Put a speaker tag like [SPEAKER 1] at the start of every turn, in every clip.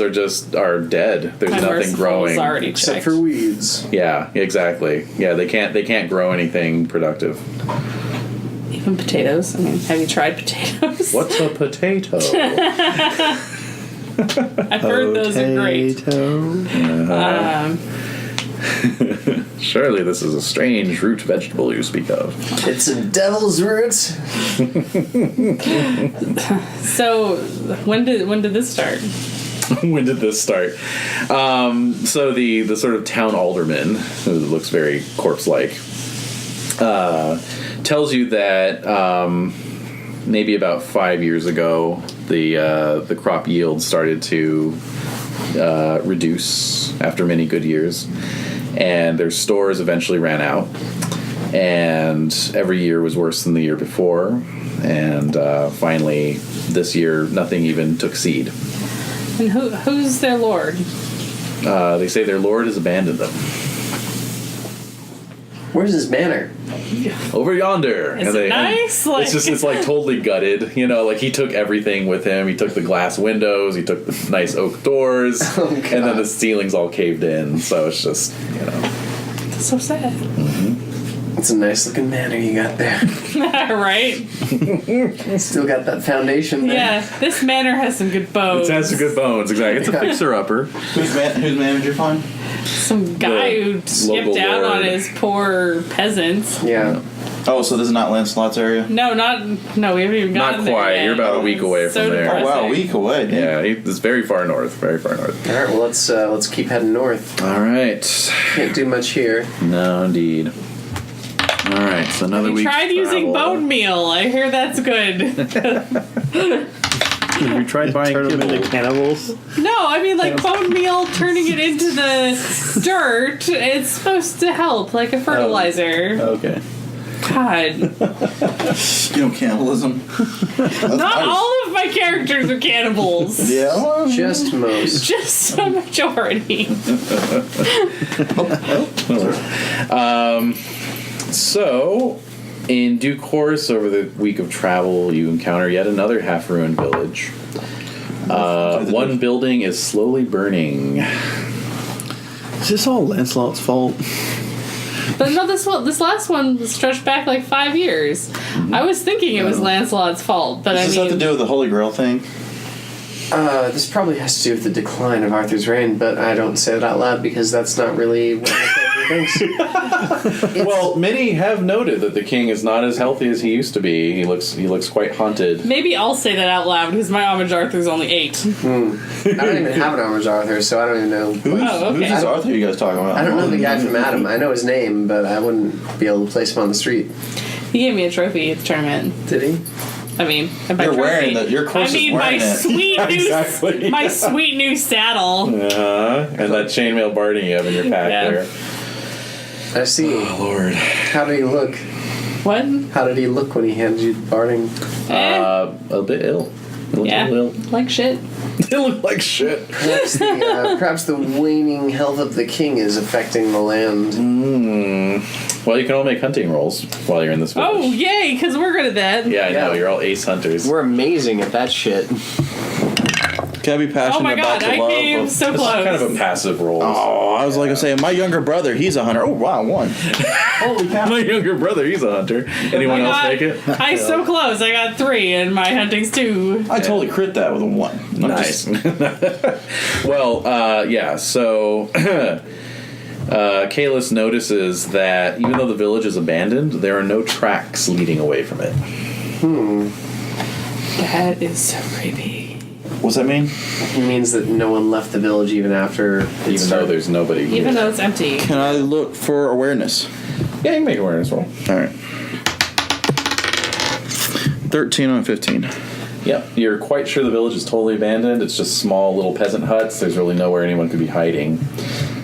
[SPEAKER 1] They're just are dead. There's nothing
[SPEAKER 2] Commercials
[SPEAKER 1] growing.
[SPEAKER 2] already
[SPEAKER 3] except
[SPEAKER 2] checked.
[SPEAKER 3] for weeds.
[SPEAKER 1] Yeah, exactly. Yeah, they can't they can't grow anything productive.
[SPEAKER 2] Even potatoes. I mean, have you tried potatoes?
[SPEAKER 1] What's a potato?
[SPEAKER 2] I've heard those are great.
[SPEAKER 3] Potato.
[SPEAKER 1] Surely this is a strange root vegetable you speak of.
[SPEAKER 3] It's a devil's root.
[SPEAKER 2] So when did when did this start?
[SPEAKER 1] when did this start? Um, so the the sort of town alderman who looks very corpse like uh, tells you that um, maybe about five years ago the uh, the crop yield started to uh, reduce after many good years, and their stores eventually ran out, and every year was worse than the year before, and uh, finally this year nothing even took seed.
[SPEAKER 2] And who who's their lord?
[SPEAKER 1] Uh, they say their lord has abandoned them.
[SPEAKER 3] Where's his manor?
[SPEAKER 1] Over yonder.
[SPEAKER 2] Is it
[SPEAKER 1] they,
[SPEAKER 2] nice? Like-
[SPEAKER 1] It's just it's like totally gutted. You know, like he took everything with him. He took the glass windows. He took the nice oak doors,
[SPEAKER 3] Oh,
[SPEAKER 1] and then the
[SPEAKER 3] God.
[SPEAKER 1] ceilings all caved in. So it's just you know.
[SPEAKER 2] That's so sad.
[SPEAKER 3] It's a nice looking manor you got there.
[SPEAKER 2] right?
[SPEAKER 3] Still got that foundation there.
[SPEAKER 2] Yeah. This manor has some good bones.
[SPEAKER 1] It has some good bones. Exactly. It's a
[SPEAKER 3] Yeah.
[SPEAKER 1] fixer upper.
[SPEAKER 4] Who's, man- who's manager fun?
[SPEAKER 2] some guy
[SPEAKER 1] The
[SPEAKER 2] who
[SPEAKER 1] local
[SPEAKER 2] skipped out on
[SPEAKER 1] lord.
[SPEAKER 2] his poor peasants.
[SPEAKER 3] Yeah.
[SPEAKER 4] Oh, so this is not Lancelot's area?
[SPEAKER 2] No, not no. We haven't even
[SPEAKER 1] Not
[SPEAKER 2] gotten there
[SPEAKER 1] quite.
[SPEAKER 2] yet.
[SPEAKER 1] You're about a week away
[SPEAKER 2] So
[SPEAKER 1] from there.
[SPEAKER 4] Oh, wow, a week away. dude.
[SPEAKER 1] Yeah, he- it's very far north. Very far north.
[SPEAKER 3] All right. Well, let's uh, let's keep heading north.
[SPEAKER 1] All right.
[SPEAKER 3] Can't do much here.
[SPEAKER 1] No, indeed. All right. So another
[SPEAKER 2] We
[SPEAKER 1] week.
[SPEAKER 2] tried using bone meal. I hear that's good.
[SPEAKER 1] We tried buying
[SPEAKER 5] Turn them
[SPEAKER 1] kibble.
[SPEAKER 5] into cannibals.
[SPEAKER 2] No, I mean like bone meal, turning it into the dirt. It's supposed to help, like
[SPEAKER 4] Oh.
[SPEAKER 2] a fertilizer.
[SPEAKER 5] Okay.
[SPEAKER 2] God,
[SPEAKER 4] You know, cannibalism.
[SPEAKER 2] not all of my characters are cannibals.
[SPEAKER 4] Yeah. well,
[SPEAKER 3] Just most.
[SPEAKER 2] Just a majority.
[SPEAKER 1] So, in due course, over the week of travel, you encounter yet another half ruined village. Uh, one building is slowly burning.
[SPEAKER 5] Is this all Lancelot's fault?
[SPEAKER 2] But no, this one, this last one was stretched back like five years. I was thinking it was Lancelot's fault, but I
[SPEAKER 4] Does this have to
[SPEAKER 2] mean,
[SPEAKER 4] do with the Holy Grail thing?
[SPEAKER 3] Uh, this probably has to do with the decline of Arthur's reign, but I don't say that out loud because that's not really what my character thinks.
[SPEAKER 1] Well, many have noted that the king is not as healthy as he used to be. He looks he looks quite haunted.
[SPEAKER 2] maybe I'll say that out loud because my homage Arthur's only eight.
[SPEAKER 3] I don't even have an armor's Arthur, so I don't even know.
[SPEAKER 4] Who's,
[SPEAKER 2] Oh, okay.
[SPEAKER 4] who's this Arthur you guys talking about?
[SPEAKER 3] I don't know the guy from Adam. I know his name, but I wouldn't be able to place him on the street.
[SPEAKER 2] He gave me a trophy at the tournament.
[SPEAKER 3] Did he?
[SPEAKER 2] I mean, and by
[SPEAKER 4] You're
[SPEAKER 2] trophy,
[SPEAKER 4] wearing the- your
[SPEAKER 2] I
[SPEAKER 4] corset's
[SPEAKER 2] mean, my
[SPEAKER 4] wearing it.
[SPEAKER 2] sweet new,
[SPEAKER 1] Exactly.
[SPEAKER 2] my sweet new saddle.
[SPEAKER 1] Uh-huh. And that chainmail barding you have in your pack
[SPEAKER 2] Yeah.
[SPEAKER 1] there.
[SPEAKER 3] I see.
[SPEAKER 1] Lord.
[SPEAKER 3] How did he look?
[SPEAKER 2] What?
[SPEAKER 3] How did he look when he handed you the barding?
[SPEAKER 2] Eh,
[SPEAKER 1] Uh, a bit ill. He looked
[SPEAKER 2] yeah,
[SPEAKER 1] a little ill.
[SPEAKER 2] like shit.
[SPEAKER 1] He looked like shit.
[SPEAKER 3] Perhaps the, uh, perhaps the waning health of the king is affecting the land.
[SPEAKER 1] Well, you can all make hunting rolls while you're in this village.
[SPEAKER 2] Oh yay, because we're good at that.
[SPEAKER 1] Yeah, I know.
[SPEAKER 3] Yeah.
[SPEAKER 1] You're all ace hunters.
[SPEAKER 6] We're amazing at that shit.
[SPEAKER 4] Can I be passionate
[SPEAKER 2] Oh my
[SPEAKER 4] about
[SPEAKER 2] god,
[SPEAKER 4] the
[SPEAKER 2] I
[SPEAKER 4] love
[SPEAKER 2] came
[SPEAKER 4] of...
[SPEAKER 2] so
[SPEAKER 1] This is
[SPEAKER 2] close.
[SPEAKER 1] kind of a passive roll.
[SPEAKER 4] Oh, I was like I was saying, my younger brother, he's a hunter. Oh, wow, one. Holy cow.
[SPEAKER 1] My younger brother, he's a hunter. Anyone
[SPEAKER 2] I
[SPEAKER 1] else
[SPEAKER 2] got-
[SPEAKER 1] make it?
[SPEAKER 2] I so close. I got three, and my hunting's two.
[SPEAKER 4] I totally crit that with a one. I'm
[SPEAKER 1] Nice.
[SPEAKER 4] just-
[SPEAKER 1] well, uh, yeah, so uh, Kalis notices that even though the village is abandoned, there are no tracks leading away from it.
[SPEAKER 2] That is so creepy.
[SPEAKER 4] what's that mean?
[SPEAKER 3] It means that no one left the village even after it
[SPEAKER 1] Even though
[SPEAKER 3] started.
[SPEAKER 1] there's nobody here.
[SPEAKER 2] Even though it's empty.
[SPEAKER 4] Can I look for awareness?
[SPEAKER 1] yeah, you can make an awareness roll.
[SPEAKER 4] All right. 13 on 15.
[SPEAKER 1] Yep. You're quite sure the village is totally abandoned. It's just small little peasant huts. There's really nowhere anyone could be hiding.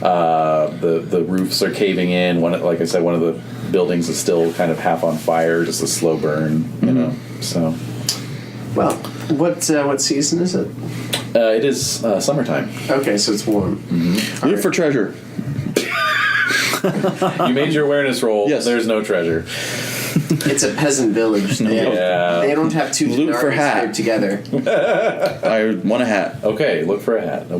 [SPEAKER 1] Uh, the the roofs are caving in. One, like I said, one of the buildings is still kind of half on fire, just a slow burn. You know, so
[SPEAKER 3] Well, what uh, what season is it?
[SPEAKER 1] uh, it is uh, summertime.
[SPEAKER 3] Okay, so it's warm.
[SPEAKER 1] Mm.
[SPEAKER 4] Look for treasure.
[SPEAKER 1] You made your awareness roll.
[SPEAKER 4] Yes.
[SPEAKER 1] There's no treasure.
[SPEAKER 3] It's a peasant village. They,
[SPEAKER 1] Yeah.
[SPEAKER 3] they don't have two
[SPEAKER 4] Loot for
[SPEAKER 3] denarii
[SPEAKER 4] hat.
[SPEAKER 3] together.
[SPEAKER 4] I want a hat.
[SPEAKER 1] Okay. Look for a hat.